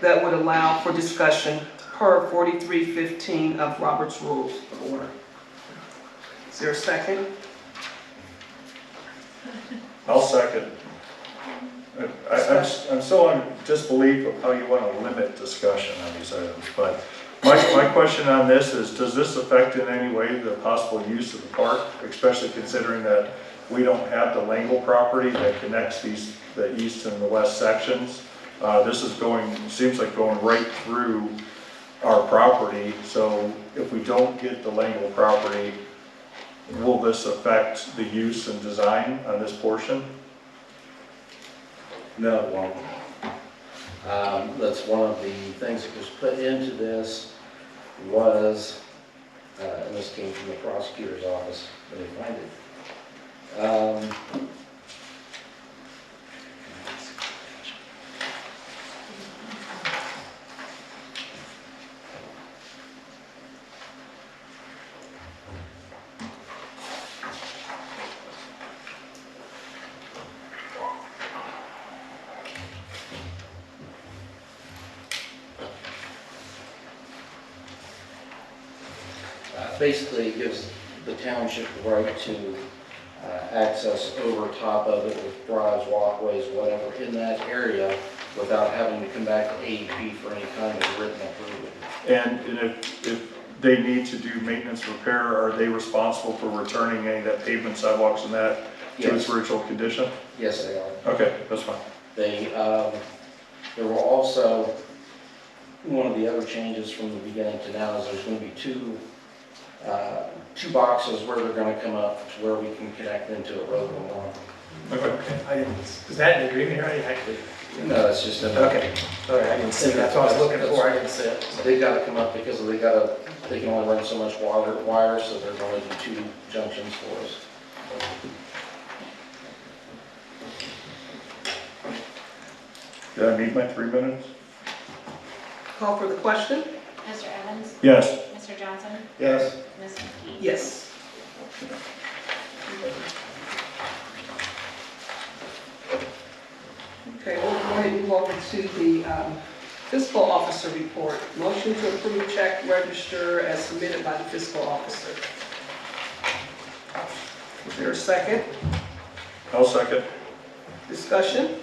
that would allow for discussion per 4315 of Robert's Rules of Order. Is there a second? I'll second. I, I'm, s- I'm still in disbelief of how you want to limit discussion on these items, but my, my question on this is, does this affect in any way the possible use of the park? Especially considering that we don't have the Langle property that connects these, the east and the west sections. Uh, this is going, seems like going right through our property, so if we don't get the Langle property, will this affect the use and design on this portion? No, it won't. Um, That's one of the things that was put into this was, uh, and this came from the prosecutor's office, let me find it. Um, uh, Basically, it gives the township the right to uh, access over top of it with drives, walkways, whatever, in that area without having to come back to AEP for any kind of written approval. And and if, if they need to do maintenance repair, are they responsible for returning any of that pavement sidewalks and that to its Yes, original condition? yes, they are. Okay, that's fine. They, um, there were also, one of the other changes from the beginning to now is there's gonna be two, uh, two boxes where they're gonna come up to where we can connect into a road and one. Okay. I didn't, is that in the agreement already, actually? No, it's just a, Okay, all right, I didn't see, that's what I was looking for, I didn't see it. they gotta come up because they gotta, they can only run so much water, wire, so they're gonna do two junctions for us. Did I meet my three minutes? Call for the question? Mr. Evans? Yes. Mr. Johnson? Yes. Ms. McKee? Yes. Okay, we'll go ahead and move over to the um, fiscal officer report. Motion to approve check register as submitted by the fiscal officer. Is there a second? I'll second. Discussion?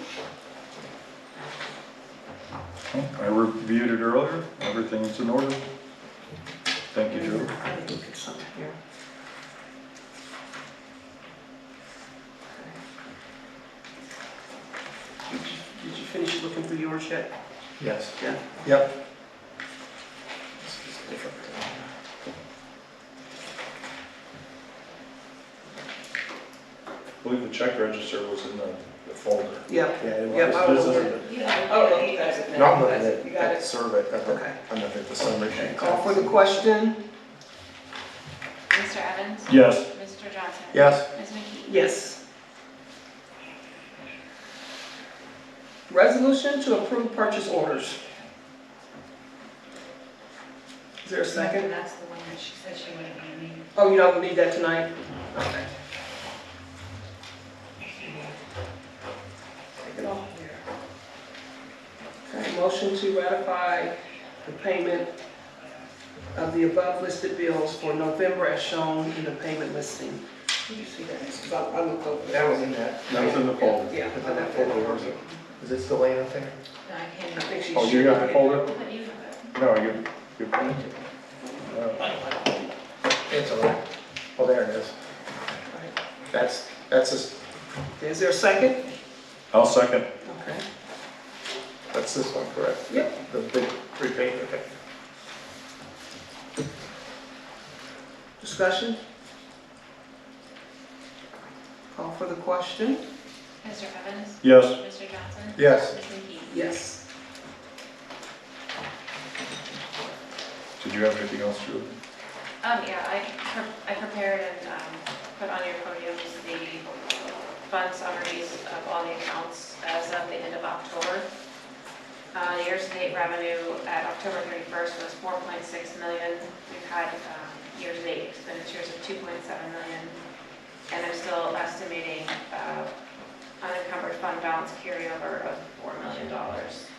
Oh, I reviewed it earlier. Everything's in order. Thank you, Joe. I need to look at something here. Did you- Did you finish looking through yours yet? Yes. Yeah. Yep. I believe the check register was in the the folder. Yep. Yeah, it Yep, was. I was This looking. isn't- You don't Oh, have okay, that's it. No, I'm looking You at, got at it. survey, at the, Okay. I'm looking at the summary sheet. Call for the question? Mr. Evans? Yes. Mr. Johnson? Yes, Ms. McKee? Yes. Resolution to approve purchase orders. Is there a second? That's the one that she said she wouldn't be needing. Oh, you don't need that tonight? Okay. Take it off here. Okay, motion to ratify the payment of the above listed bills for November as shown in the payment listing. Did you see that? It's about- I looked over that there. was in that. That was in the folder. Yeah, Is I that got folder, that. or is it- is it still laying up there? No, I I can't. think she Oh, you got the folder? But you have No, it. you, you. uh, It's all right. Oh, there it is. That's, that's this, Is there a second? I'll second. Okay. that's this one, correct? Yep. The big repaint, okay. Discussion? Call for the question? Mr. Evans? Yes. Mr. Johnson? Yes. Ms. McKee? Yes. Did you have anything else, Julie? Um, yeah, I, pre- I prepared and, um, put on your podium the fund summaries of all the accounts as of the end of October. Uh, year-to-date revenue at October thirty-first was four point six million. We've had, um, year-to-date expenditures of two point seven million. And I'm still estimating, uh, unencumbered fund balance carryover of four million dollars. Um,